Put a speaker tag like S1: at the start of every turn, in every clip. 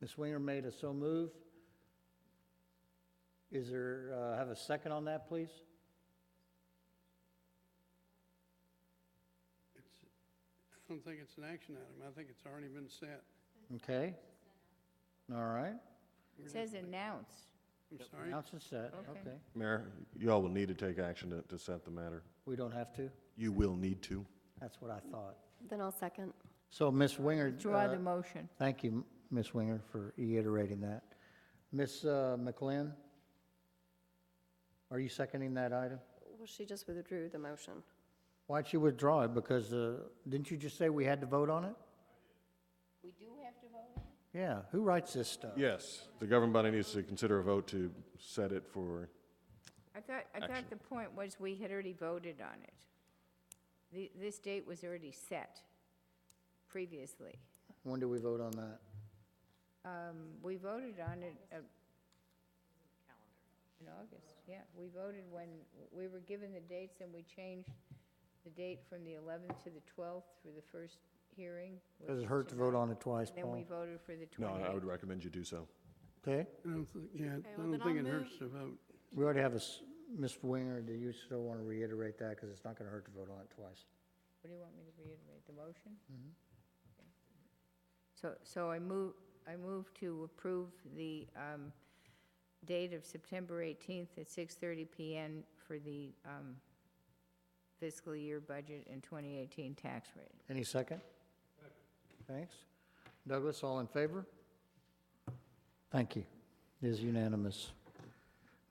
S1: Ms. Winger made a so move. Is there, uh, have a second on that, please?
S2: It's, I don't think it's an action item. I think it's already been set.
S1: Okay. All right,
S2: We're
S3: It
S2: just-
S3: says announce.
S2: I'm sorry.
S1: announce and set,
S3: Okay.
S1: okay.
S4: Mayor, y'all will need to take action to, to set the matter.
S1: We don't have to?
S4: You will need to.
S1: That's what I thought.
S5: Then I'll second.
S1: So Ms. Winger,
S3: Draw
S1: uh,
S3: the motion.
S1: thank you, Ms. Winger, for reiterating that. Ms. uh, McLean, are you seconding that item?
S5: Well, she just withdrew the motion.
S1: Why'd you withdraw it? Because, uh, didn't you just say we had to vote on it?
S3: We do have to vote?
S1: Yeah, who writes this stuff?
S4: Yes, the governing body needs to consider a vote to set it for,
S3: I thought, I thought the point was we had already voted on it. The, this date was already set previously.
S1: When do we vote on that?
S3: Um, We voted on it. uh, In August, yeah. We voted when, we were given the dates and we changed the date from the 11th to the 12th for the first hearing. which
S1: Does it
S3: is
S1: hurt to
S3: tonight.
S1: vote on it twice,
S3: Then we
S1: Paul?
S3: voted for the
S4: no,
S3: 28th.
S4: I would recommend you do so.
S1: Okay,
S2: I don't think, yeah, I
S6: well,
S2: don't
S6: then
S2: think
S6: I'll
S2: it hurts to vote.
S1: we already have a, s- Ms. Winger, do you still want to reiterate that? Because it's not going to hurt to vote on it twice.
S3: What do you want me to reiterate, the motion? Okay. So, so I move, I move to approve the um, date of September 18th at 6:30 PM for the um, fiscal year budget and 2018 tax rate.
S1: Any second? Thanks. Douglas, all in favor? Thank you. It is unanimous.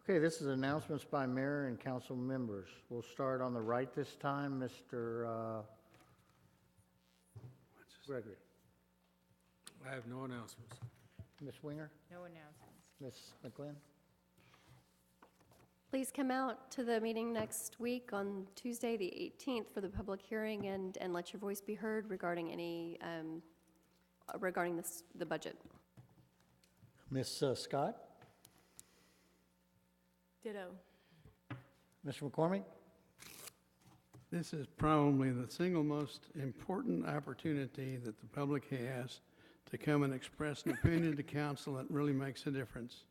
S1: Okay, this is announcements by mayor and council members. We'll start on the right this time, Mr. uh, Gregory.
S7: I have no announcements.
S1: Ms. Winger,
S3: No announcements.
S1: Ms. McGlynn?
S5: Please come out to the meeting next week on Tuesday, the 18th, for the public hearing and, and let your voice be heard regarding any, um, uh, regarding this, the budget.
S1: Ms. uh, Scott?
S6: Ditto.
S1: Mr. McCormick?
S2: This is probably the single most important opportunity that the public has to come and express an opinion to council that really makes a difference.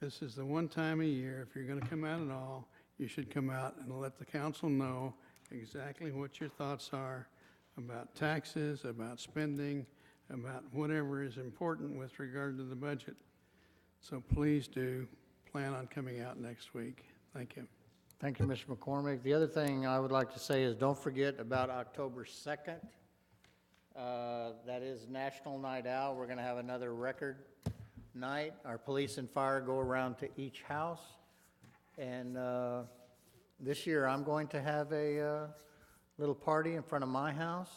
S2: This is the one time a year, if you're going to come out at all, you should come out and let the council know exactly what your thoughts are about taxes, about spending, about whatever is important with regard to the budget. So please do plan on coming out next week. Thank you.
S1: Thank you, Mr. McCormick. The other thing I would like to say is don't forget about October 2nd. Uh, That is National Night Out. We're going to have another record night. Our police and fire go around to each house. And uh, this year, I'm going to have a uh, little party in front of my house.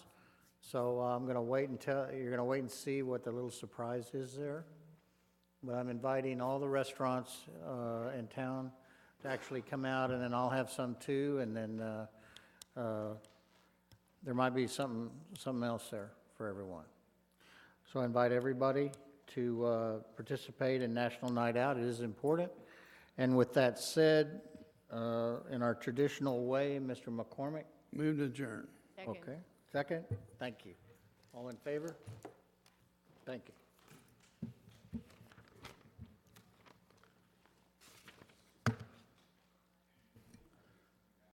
S1: So uh, I'm going to wait until, you're going to wait and see what the little surprise is there. But I'm inviting all the restaurants uh, in town to actually come out, and then I'll have some too, and then uh, uh, there might be something, something else there for everyone. So I invite everybody to uh, participate in National Night Out, it is important. And with that said, uh, in our traditional way, Mr. McCormick?
S2: Move to adjourn.
S3: Second.
S1: Okay, second? Thank you. All in favor? Thank you.